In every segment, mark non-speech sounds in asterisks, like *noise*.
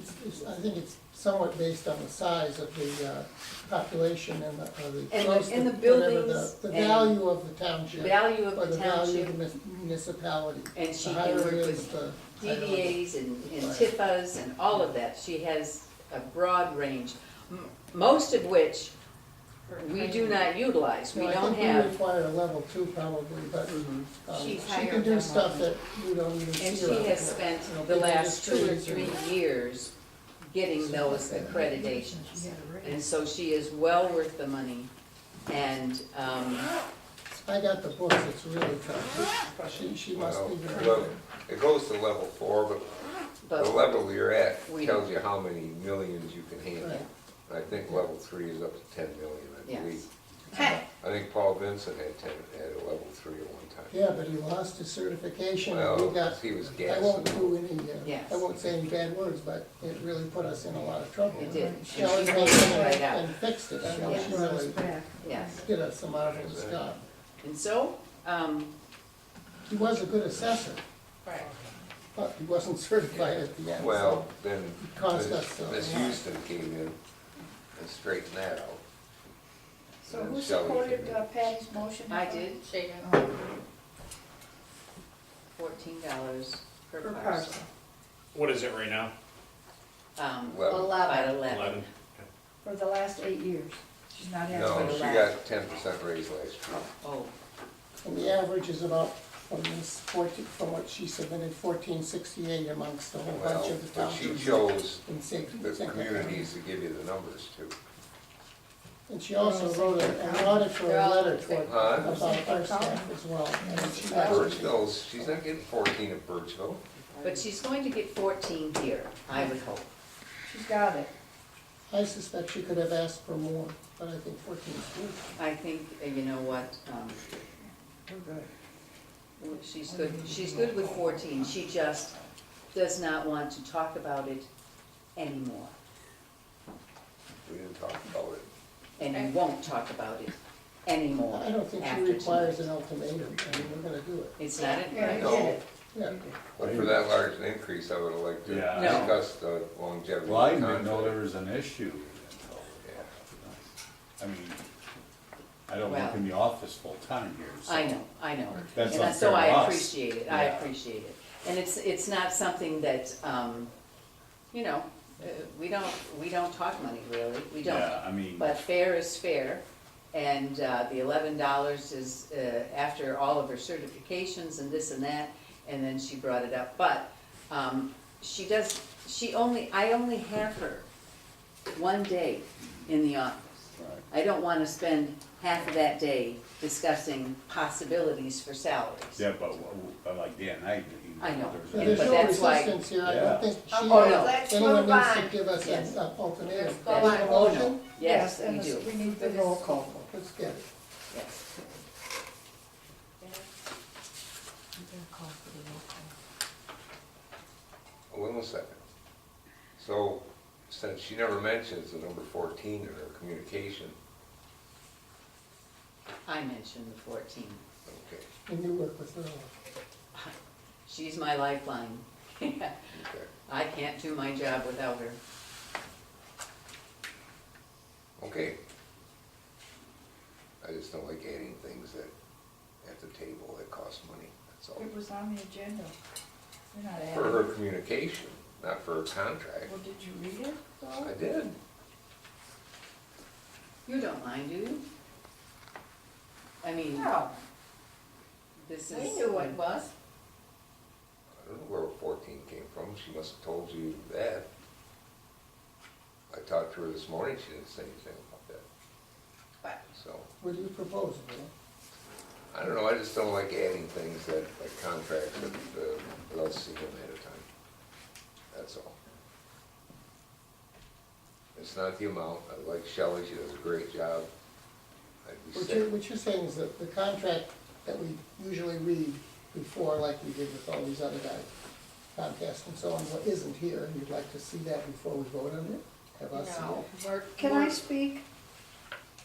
it's, I think it's somewhat based on the size of the uh, population and the, or the. And the- close and to the whatever the- buildings The and value of the township. value Or of the the value of township, the mis- municipality. and she The can higher work it is, with the higher it is. DDAs and, and Right. TIFAs and all of that. She has a broad range, m- most of which we do not utilize, we No, don't I think we have. require a level two probably, but Mhm. um, she She's can higher do than stuff one. that you don't even see. And she around has here. spent You know, the big last two or industries three and- years getting those accreditations. And so she is well worth the money. And, um, I got the books, it's really tough. She, she must be very Well, good. It goes to level four, but the but, level you're at We- tells you how many millions you can handle. Right. And I think level three is up to ten million, I believe. yes. I think Paul Vincent had ten, had a level three at one time. Yeah, but he lost his certification and we Well, got, 'cause he was I won't gassing. do any, uh, Yes. I won't say any bad words, but it really put us in a lot of trouble. It did. And she Shelley pulled came it in right and- out. and fixed it. I know Yes. she really Yes, did us some marvelous Exactly. job. and so, um, He was a good assessor, Right. but he wasn't *laughs* certified at the end, so. Well, then Cost Miss us a Miss lot. Houston came in and straightened that out. So And then who Shelley came supported in. uh, Patty's motion? I did Shaken. fourteen dollars per Per parcel. parcel, What is it right now? Um, Well, about Eleven. eleven. Eleven? for the last eight years. She's not No, asking she for the last. got ten percent raise last year. Oh, And the average is about, from this fourteen, from what she submitted, fourteen sixty-eight amongst a whole bunch Well, of the but she townships. chose in safety. the Second. communities to give you the numbers too. And she also wrote a- an auditor They're all letter the toward, same. Huh? about our staff as well. And she actually- Birchville's, she's not getting fourteen at Birchville. but she's going to get fourteen here, I would hope. She's got it. I suspect she could have asked for more, but I think fourteen is good. I think, uh, you know what, um, Oh, We're good. she's good, she's good with fourteen, she just does not want to talk about it anymore. We didn't talk about it. And won't talk about it anymore I don't think she after requires an tonight. ultimatum, I mean, we're gonna do it. It's not, in- Yeah, I right? No. get it. Yeah, But for that large an increase, I would have liked to Yeah. No. discuss the longevity. Well, I of the didn't know there contract. was an issue. Yeah. I mean, I don't work in the office full-time here, so. I know, I know. That's And so unfair to I us. appreciate it, I Yeah. appreciate it. And it's, it's not something that, um, you know, uh, we don't, we don't talk money really, we don't. Yeah, I mean, But fair is fair, and uh, the eleven dollars is uh, after all of her certifications and this and that, and then she brought it up. But um, she does, she only, I only have her one day in the office. right. I don't want to spend half of that day discussing possibilities for salaries. yeah, but w- w- but like Dan, I, you I know. know, there's. Now, Yeah, there's an but no issue. that's why- resistance here, I Yeah. don't think she, Oh, no. Let's anyone move needs to on. give us Yes. an uh, ultimatum. Let's go on. Is it a Oh, no. motion? Yes, we and do, We need the roll call. vote. Let's get it. yes. Wait one second. So, since she never mentions the number fourteen in her communication, I mentioned the fourteen. okay, And you work with her. She's my lifeline. *laughs* okay, I can't do my job without her. okay. I just don't like adding things that, at the table that cost money, that's all. It was on the agenda. You're not For asking. her communication, not for her contract. Well, did you read it though? I did. You don't mind, do you? I mean, No, this is. We knew what was. I don't know where fourteen came from, she must have told you that. I talked to her this morning, she didn't say anything about that, But so, What do you propose, Bill? I don't know, I just don't like adding things that, like contracts that, uh, without seeing them ahead of time. That's all. It's not the amount, I like Shelley, she does a great job. I'd be What sick. you're, what you're saying is that the contract that we usually read before, like we did with all these other guys, Comcast and so on, what isn't here, and you'd like to see that before we vote on it? Have us see no, it? we're. can I we're- speak?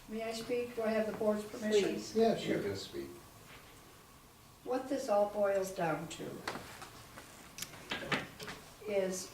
May I speak? Do I have the board's permission? Please. Yeah, You sure. can speak. What this all boils down to is